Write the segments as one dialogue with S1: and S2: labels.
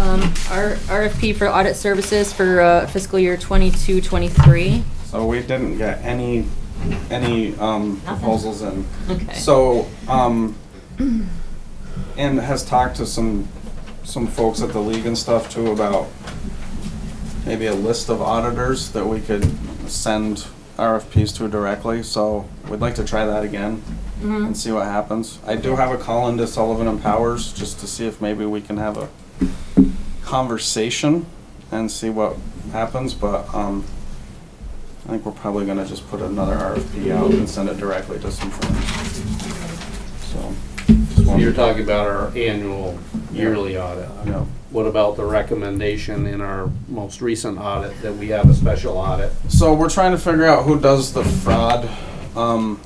S1: Um, our RFP for audit services for uh, fiscal year 22, 23.
S2: So we didn't get any, any um, proposals in.
S1: Okay.
S2: So, um, and has talked to some, some folks at the league and stuff too about maybe a list of auditors that we could send RFPs to directly, so we'd like to try that again
S1: Mm-hmm.
S2: and see what happens. I do have a call into Sullivan and Powers, just to see if maybe we can have a conversation and see what happens, but, um, I think we're probably gonna just put another RFP out and send it directly to some firms. So. just
S3: So
S2: wanted-
S3: You're talking about our annual yearly audit.
S2: Yeah.
S3: What about the recommendation in our most recent audit that we have a special audit?
S2: So we're trying to figure out who does the fraud um,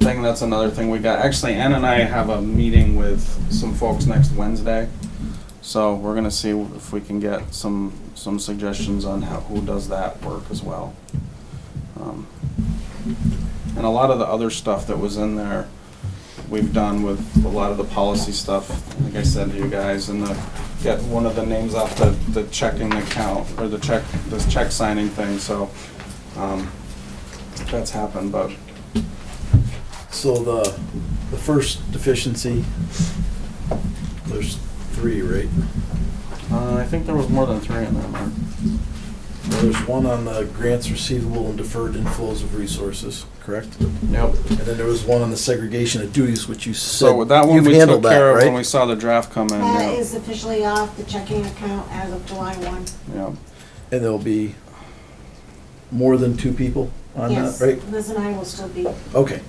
S2: thing. That's another thing we got. Actually, Ann and I have a meeting with some folks next Wednesday, so we're gonna see if we can get some some suggestions on how who does that work as well. Um, and a lot of the other stuff that was in there, we've done with a lot of the policy stuff. Like I said to you guys, and the get one of the names off the the checking account or the check this check signing thing. So. Um, that's happened, but
S4: So the, the first deficiency, there's three, right?
S2: uh, I think there was more than three in there, Mark.
S4: Well, There's one on the grants receivable and deferred inflows of resources, correct?
S2: Yep.
S4: And then there was one on the segregation of duties, which you said,
S2: So that one
S4: you've
S2: we took
S4: handled that,
S2: care of when we
S4: right?
S2: saw the draft come in.
S5: That
S2: yeah.
S5: is officially off the checking account as of July one.
S2: Yeah.
S4: And there'll be more than two people on that,
S5: Yes,
S4: right?
S5: Liz and I will still be,
S4: Okay,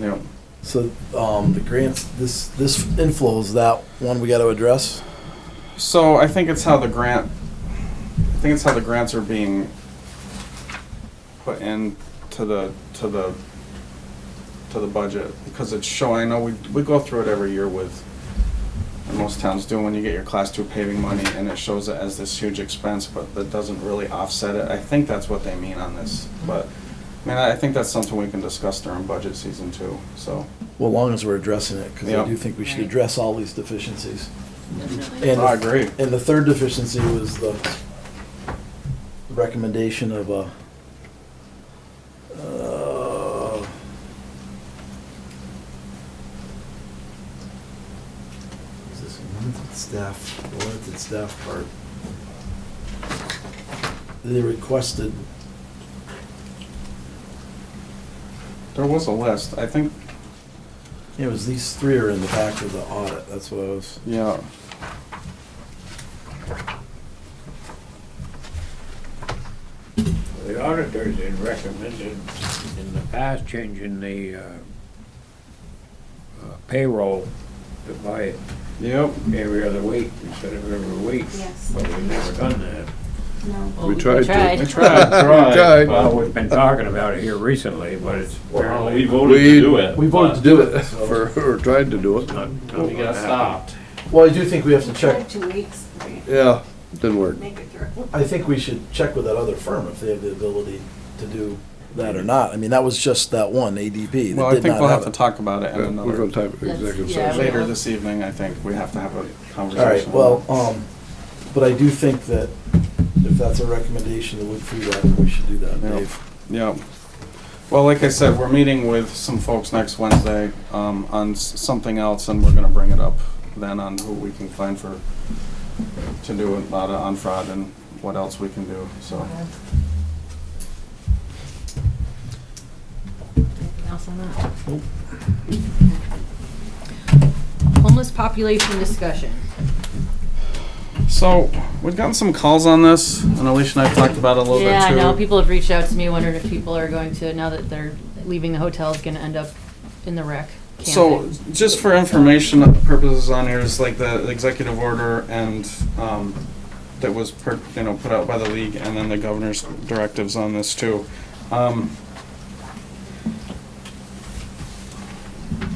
S2: Yep.
S4: so, um, the grants, this, this inflows, that one we gotta address?
S2: So I think it's how the grant, I think it's how the grants are being put in to the, to the, to the budget, because it's showing, I know we, we go through it every year with, and most towns do, when you get your class two paving money, and it shows it as this huge expense, but that doesn't really offset it, I think that's what they mean on this, but, I mean, I think that's something we can discuss during budget season too, so.
S4: Well, long as we're addressing it, because I
S2: Yeah.
S4: do think we should
S1: Right.
S4: address all these deficiencies.
S1: Definitely.
S4: And
S2: I
S4: the-
S2: agree.
S4: And the third deficiency was the recommendation of a, uh, is this limited staff, the limited staff part? They requested,
S2: There was a list, I think,
S4: it was these three are in the back of the audit, that's what I was.
S2: yeah,
S6: The auditors had recommended in the past changing the uh, uh, payroll to buy it
S2: yep,
S6: every other week instead of every week.
S5: Yes.
S6: But we've never done that.
S5: no.
S1: We
S7: tried to.
S2: I tried.
S7: tried.
S6: Well, we've been talking about it here recently, but it's
S8: We
S6: apparently
S8: voted to do it.
S7: We voted to do it, for- or tried to do it.
S6: not. not
S3: We got
S6: happening.
S3: stopped.
S4: Well, I do think we have to
S5: Try
S4: check,
S5: Two weeks, right,
S7: Yeah, didn't work.
S5: make it through.
S4: I think we should check with that other firm if they have the ability to do that or not. I mean, that was just that one ADP
S2: Well,
S4: that
S2: I
S4: did
S2: think
S4: not
S2: we'll have
S4: have
S2: to
S4: it.
S2: talk about it in
S7: Yeah, We're
S2: another,
S7: gonna uh, type it executive
S1: That's- yeah,
S7: session.
S1: we-
S2: later this evening, I think, we have to have a
S4: All right,
S2: conversation.
S4: well, um, but I do think that if that's a recommendation to look through that, we should do that,
S2: Yeah.
S4: Dave.
S2: Yeah. Well, like I said, we're meeting with some folks next Wednesday, um, on s- something else, and we're gonna bring it up then on who we can find for, to do a lot of on fraud and what else we can do, so.
S1: Anything else on that? Homeless population discussion.
S2: So, we've gotten some calls on this, and Alicia and I have talked about it a little bit too.
S1: Yeah, I know, people have reached out to me wondering if people are going to, now that they're leaving the hotel, is gonna end up in the wreck.
S2: So,
S1: camping.
S2: just for information purposes on here is like the executive order and, um, that was, per- you know, put out by the league and then the governor's directives on this too. Um,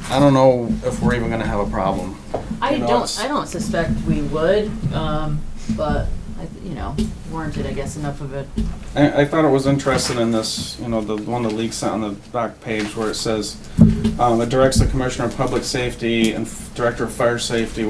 S2: I don't know if we're even gonna have a problem.
S1: I
S2: You know,
S1: don't,
S2: it's-
S1: I don't suspect we would, um, but, I th- you know, warranted, I guess, enough of it.
S2: I, I thought it was interesting in this, you know, the one the leaks out on the back page where it says, um, it directs the commissioner of public safety and f- director of fire safety